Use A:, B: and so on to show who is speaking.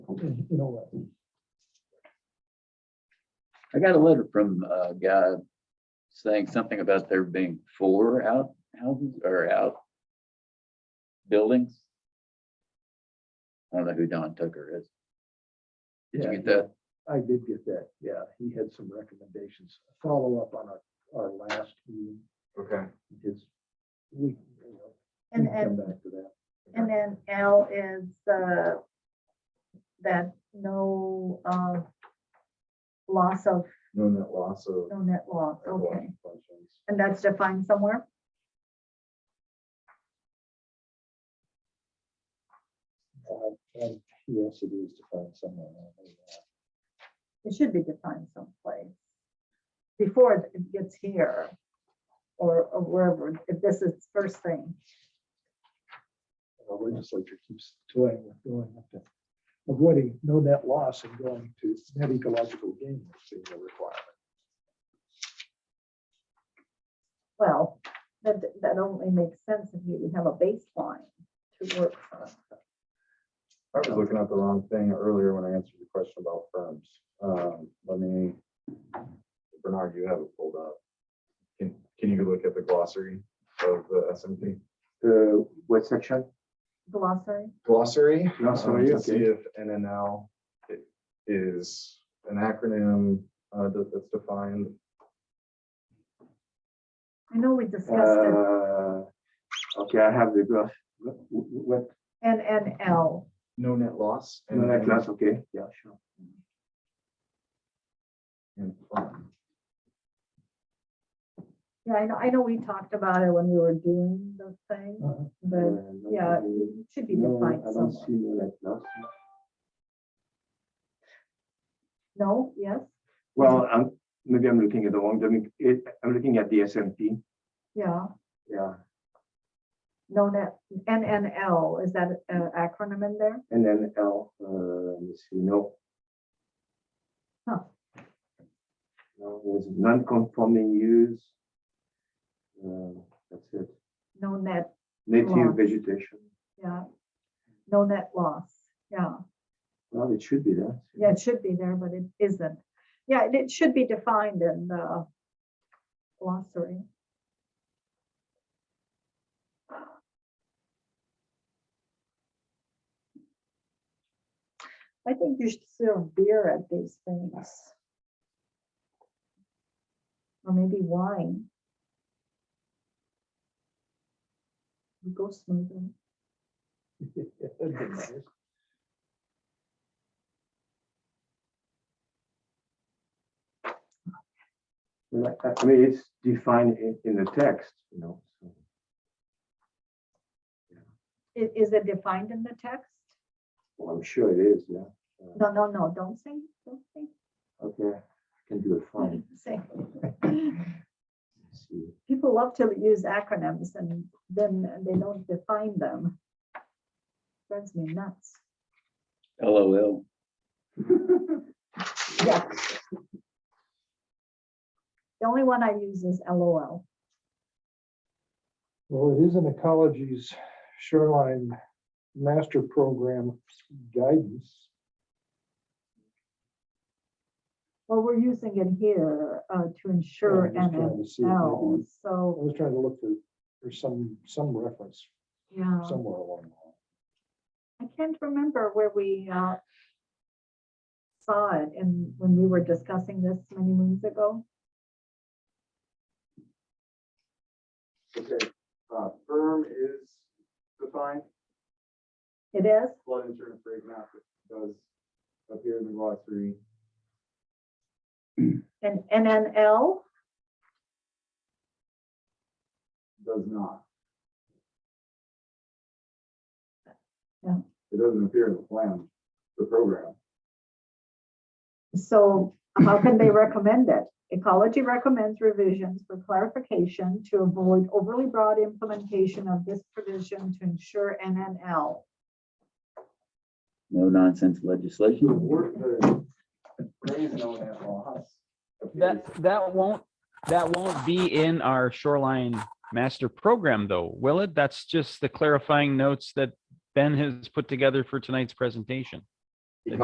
A: in in a way.
B: I got a letter from a guy saying something about there being four out houses or out buildings. I don't know who Don Tucker is. Did you
A: Yeah,
B: get that?
A: I did get that. Yeah, he had some recommendations. Follow up on our, our last meeting,
C: Okay.
A: his we you know, we
D: And,
A: can Come
D: and,
A: back to that.
D: and then L is, uh, that no, uh, loss of,
C: No net loss of.
D: no net loss, okay.
C: Functions.
D: And that's defined somewhere?
A: Uh, and Yes, it is to find someone. I know that.
D: It should be defined someplace. Before it gets here or or wherever, if this is first thing.
A: Our legislature keeps toying with going up to avoiding no net loss and going to net ecological gain as being a requirement.
D: Well, that, that only makes sense if you have a baseline to work from.
C: I was looking at the wrong thing earlier when I answered the question about firms. Um, let me, Bernard, you have it pulled up. Can, can you look at the glossary of the S and P?
E: Uh, what section?
D: Glossary,
C: Glossary?
E: Glossary,
C: um, to See
E: okay.
C: if NNL i- is an acronym, uh, that, that's defined.
D: I know we discussed it,
E: Uh, Okay, I have the graph. What, what,
D: NNL.
C: No net loss.
E: no, that class, okay, yeah, sure.
C: And firm.
D: Yeah, I know, I know we talked about it when we were doing the thing,
A: Uh-huh.
D: but
E: Uh, no,
D: yeah,
E: uh,
D: it should be
E: No,
D: defined
E: I don't
D: somewhere.
E: see no net loss.
D: No, yes,
E: Well, i maybe I'm looking at the wrong, domain. It- I'm looking at the SMP,
D: yeah,
E: yeah,
D: no, that, NNL, is that an acronym in there?
E: and then L, uh, let me see, no.
D: Huh.
E: No, was non-conforming use. Uh, That's it,
D: No net,
E: native
D: Loss.
E: vegetation,
D: yeah, no net loss, yeah.
E: well, it should be that.
D: Yeah, it should be there, but it isn't. Yeah, and it should be defined in the glossary. I think you should serve beer at these things. Or maybe wine. We Go smoothie.
A: That'd be nice.
E: Well, I I mean, it's defined in, in the text, you know, so.
D: Is, is it defined in the text?
E: Well, I'm sure it is, yeah.
D: No, no, no, don't say, don't say
E: Okay, I can do it fine.
D: Say.
E: Let's see.
D: People love to use acronyms and then they don't define them. Drives me nuts.
B: LOL.
D: Yeah. The only one I use is LOL.
A: Well, it is in ecology's shoreline master program guidance.
D: Well, we're using it here uh, to ensure
A: I'm just trying to see if
D: NNL,
A: maybe- I
D: so,
A: was trying to look for, for some, some reference
D: yeah.
A: somewhere along the line.
D: I can't remember where we uh, saw it and when we were discussing this many moons ago.
C: Okay, uh, firm is defined.
D: It is?
C: flood insurance rate map that does appear in the glossary.
D: And NNL?
C: does not.
D: Yeah.
C: It doesn't appear in the plan, the program.
D: So how can they recommend it? Ecology recommends revisions for clarification to avoid overly broad implementation of this provision to ensure NNL.
B: No nonsense
C: The
B: legislation.
C: word, the phrase known as loss.
F: That, that won't, that won't be in our shoreline master program though, will it? That's just the clarifying notes that Ben has put together for tonight's presentation.